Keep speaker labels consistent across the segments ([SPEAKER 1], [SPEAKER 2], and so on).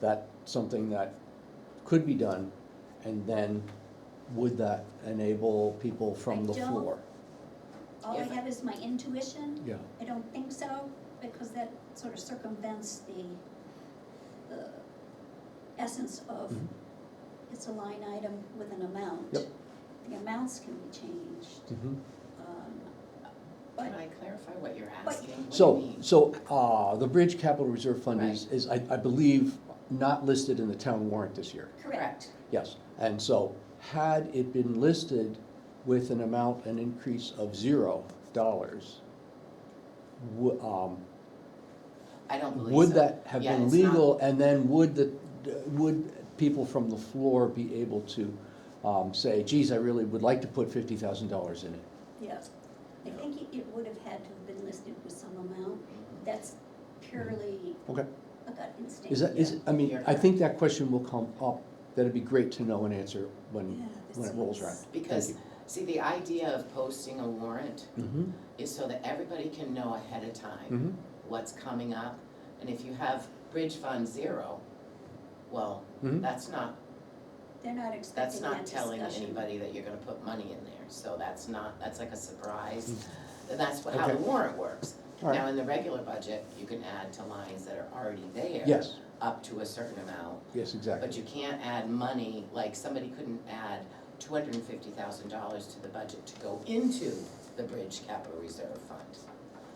[SPEAKER 1] that something that could be done? And then would that enable people from
[SPEAKER 2] I
[SPEAKER 1] the
[SPEAKER 2] don't-
[SPEAKER 1] floor?
[SPEAKER 2] All I
[SPEAKER 3] Yeah.
[SPEAKER 2] have is my intuition.
[SPEAKER 1] Yeah,
[SPEAKER 2] I don't think so, because that sort of circumvents the, the essence of,
[SPEAKER 1] Mhm.
[SPEAKER 2] it's a line item with an amount.
[SPEAKER 1] Yep.
[SPEAKER 2] The amounts can be changed,
[SPEAKER 1] mhm.
[SPEAKER 2] um,
[SPEAKER 3] Can
[SPEAKER 2] but,
[SPEAKER 3] I clarify what you're
[SPEAKER 2] But-
[SPEAKER 3] asking? What do you
[SPEAKER 1] So,
[SPEAKER 3] mean?
[SPEAKER 1] so, uh, the Bridge Capital Reserve Fund is, is, I, I believe, not listed in the town warrant this year.
[SPEAKER 2] correct,
[SPEAKER 1] Yes, and so had it been listed with an amount, an increase of zero dollars, wo- um,
[SPEAKER 3] I don't believe so.
[SPEAKER 1] would that have
[SPEAKER 3] Yeah,
[SPEAKER 1] been
[SPEAKER 3] it's not-
[SPEAKER 1] legal? And then would the, would people from the floor be able to um, say, geez, I really would like to put fifty thousand dollars in it?
[SPEAKER 2] yes. I think it, it would have had to have been listed with some amount, that's purely
[SPEAKER 1] Mm-hmm. Okay.
[SPEAKER 2] a gut instinct.
[SPEAKER 1] Is that, is, I mean,
[SPEAKER 3] Yeah.
[SPEAKER 1] I think that question will come up, that'd be great to know and answer when,
[SPEAKER 2] Yeah,
[SPEAKER 1] when it
[SPEAKER 2] this
[SPEAKER 1] rolls
[SPEAKER 2] is-
[SPEAKER 1] around.
[SPEAKER 3] Because, see, the idea of posting a warrant
[SPEAKER 1] Mhm,
[SPEAKER 3] is so that everybody can know ahead of time
[SPEAKER 1] mhm,
[SPEAKER 3] what's coming up. And if you have Bridge Fund Zero, well,
[SPEAKER 1] mhm.
[SPEAKER 3] that's not,
[SPEAKER 2] They're not
[SPEAKER 3] that's
[SPEAKER 2] expecting that
[SPEAKER 3] not
[SPEAKER 2] discussion.
[SPEAKER 3] telling anybody that you're gonna put money in there. So that's not, that's like a surprise. And that's how the
[SPEAKER 1] Mm-hmm. Okay.
[SPEAKER 3] warrant works.
[SPEAKER 1] All right.
[SPEAKER 3] Now, in the regular budget, you can add to lines that are already there.
[SPEAKER 1] Yes,
[SPEAKER 3] Up to a certain amount.
[SPEAKER 1] yes,
[SPEAKER 3] But
[SPEAKER 1] exactly.
[SPEAKER 3] you can't add money, like somebody couldn't add two hundred and fifty thousand dollars to the budget to go into the Bridge Capital Reserve Fund.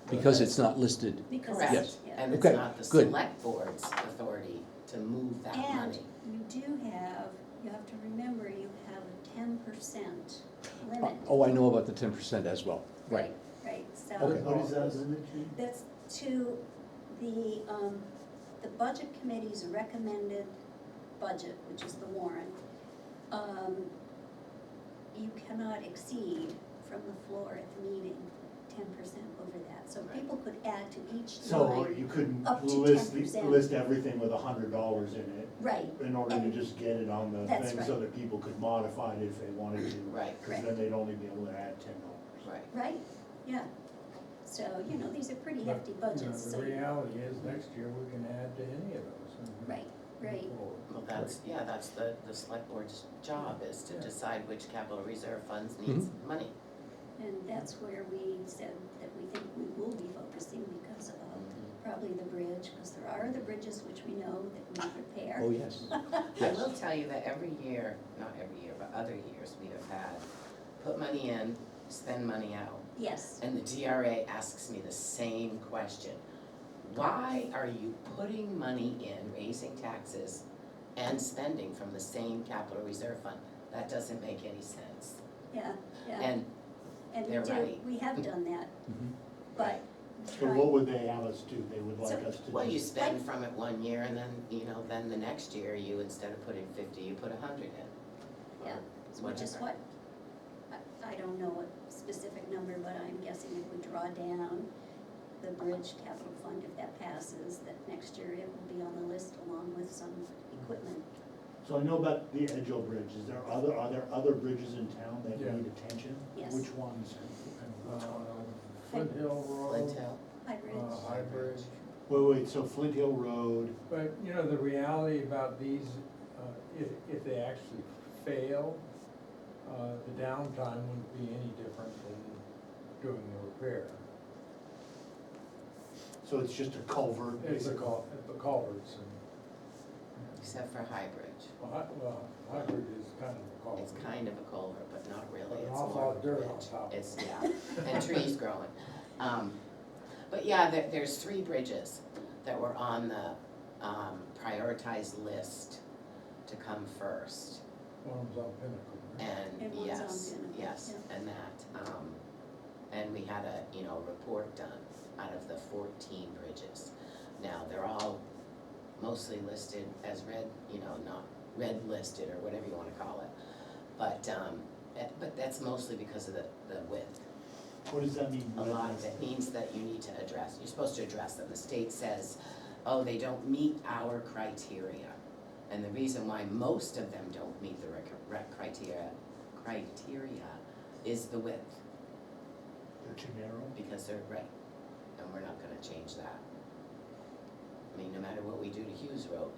[SPEAKER 1] Because it's not listed
[SPEAKER 2] Because,
[SPEAKER 3] Correct.
[SPEAKER 1] Yes.
[SPEAKER 2] yeah.
[SPEAKER 3] And it's
[SPEAKER 1] Okay,
[SPEAKER 3] not the
[SPEAKER 1] good.
[SPEAKER 3] select board's authority to move that
[SPEAKER 2] And
[SPEAKER 3] money.
[SPEAKER 2] you do have, you have to remember, you have a ten percent limit.
[SPEAKER 1] Oh, I know about the ten percent as well, right.
[SPEAKER 2] Right,
[SPEAKER 1] Okay.
[SPEAKER 2] so
[SPEAKER 4] What is that limit to?
[SPEAKER 2] that's to the, um, the budget committee's recommended budget, which is the warrant. Um, you cannot exceed from the floor at the meeting ten percent over that, so
[SPEAKER 3] Right.
[SPEAKER 2] people could add to each
[SPEAKER 4] So
[SPEAKER 2] line.
[SPEAKER 4] you couldn't
[SPEAKER 2] Up to
[SPEAKER 4] list,
[SPEAKER 2] 10%.
[SPEAKER 4] list everything with a hundred dollars in it
[SPEAKER 2] Right,
[SPEAKER 4] in order to
[SPEAKER 2] And-
[SPEAKER 4] just get it on the
[SPEAKER 2] That's
[SPEAKER 4] thing so that people could modify it if they wanted to.
[SPEAKER 3] Right,
[SPEAKER 4] Cause then they'd only be able to add ten dollars.
[SPEAKER 3] right.
[SPEAKER 2] right, yeah. So, you know, these are pretty hefty
[SPEAKER 5] You know,
[SPEAKER 2] budgets, so
[SPEAKER 5] The
[SPEAKER 2] you
[SPEAKER 5] reality is, next year, we can add to any of those. and-
[SPEAKER 2] Right, right,
[SPEAKER 5] Forward.
[SPEAKER 3] Well, that's, yeah, that's the, the select board's job is to
[SPEAKER 5] Yeah.
[SPEAKER 3] decide which capital reserve funds
[SPEAKER 1] Mm-hmm.
[SPEAKER 3] needs money.
[SPEAKER 2] and that's where we said that we think we will be focusing because of
[SPEAKER 3] Mm-hmm.
[SPEAKER 2] probably the bridge, because there are other bridges which we know that we repair.
[SPEAKER 1] Oh, yes,
[SPEAKER 3] I
[SPEAKER 1] yes.
[SPEAKER 3] will tell you that every year, not every year, but other years, we have had, put money in, spend money out.
[SPEAKER 2] Yes,
[SPEAKER 3] And the DRA asks me the same question. Why are you putting money in, raising taxes and spending from the same capital reserve fund? That doesn't make any sense.
[SPEAKER 2] yeah, yeah,
[SPEAKER 3] And,
[SPEAKER 2] and we
[SPEAKER 3] they're
[SPEAKER 2] do,
[SPEAKER 3] right.
[SPEAKER 2] we have done that,
[SPEAKER 1] Mhm.
[SPEAKER 2] but.
[SPEAKER 4] Mm-hmm. So what would they have us do? They would
[SPEAKER 2] So-
[SPEAKER 4] like us to do?
[SPEAKER 3] well, you spend from it one year and then, you know, then the next year, you, instead of putting fifty, you put a hundred in.
[SPEAKER 2] Yeah,
[SPEAKER 3] Or
[SPEAKER 2] Which is
[SPEAKER 3] whatever.
[SPEAKER 2] what, I, I don't know what specific number, but I'm guessing if we draw down the bridge capital fund, if that passes, that next year it will be on the list along with some equipment.
[SPEAKER 4] So I know about the Edgeo Bridge. Is there other, are there other bridges in town that
[SPEAKER 5] Yeah.
[SPEAKER 4] need attention?
[SPEAKER 2] Yes.
[SPEAKER 4] Which ones?
[SPEAKER 5] Uh, Flint Hill
[SPEAKER 3] Um, Flint
[SPEAKER 5] Road,
[SPEAKER 3] Hill,
[SPEAKER 2] High
[SPEAKER 4] Oh.
[SPEAKER 5] uh,
[SPEAKER 2] bridge,
[SPEAKER 5] High Bridge.
[SPEAKER 4] Wait, wait, so Flint Hill Road,
[SPEAKER 5] But, you know, the reality about these, uh, if, if they actually fail, uh, the downtime wouldn't be any different than doing the repair.
[SPEAKER 4] so it's just a culvert?
[SPEAKER 5] It's the
[SPEAKER 4] basically?
[SPEAKER 5] cul, the culverts and,
[SPEAKER 3] except for High Bridge.
[SPEAKER 5] well, Hi- well, High Bridge is kind of a culvert.
[SPEAKER 3] It's kind of a culvert, but not really,
[SPEAKER 5] But
[SPEAKER 3] it's
[SPEAKER 5] an
[SPEAKER 3] more.
[SPEAKER 5] awful lot of
[SPEAKER 3] of a
[SPEAKER 5] dirt on
[SPEAKER 3] bridge.
[SPEAKER 5] top of
[SPEAKER 3] It's, yeah, and trees growing. Um, But yeah, there, there's three bridges that were on the um, prioritized list to come first.
[SPEAKER 5] One of them's on Pinnacle. right?
[SPEAKER 3] And
[SPEAKER 2] And one's on
[SPEAKER 3] yes,
[SPEAKER 2] Pinnacle,
[SPEAKER 3] yes, and that, um, and we had a, you know, report done out of the fourteen bridges. Now, they're all mostly listed as red, you know, not red listed or whatever you wanna call it. But, um, eh, but that's mostly because of the, the width.
[SPEAKER 4] What does that mean?
[SPEAKER 3] A lot of it means that you need to address, you're supposed to address them. The state says, oh, they don't meet our criteria. And the reason why most of them don't meet the rec- rec- criteria, criteria is the width,
[SPEAKER 4] They're too narrow?
[SPEAKER 3] because they're right, and we're not gonna change that. I mean, no matter what we do to Hughes Road,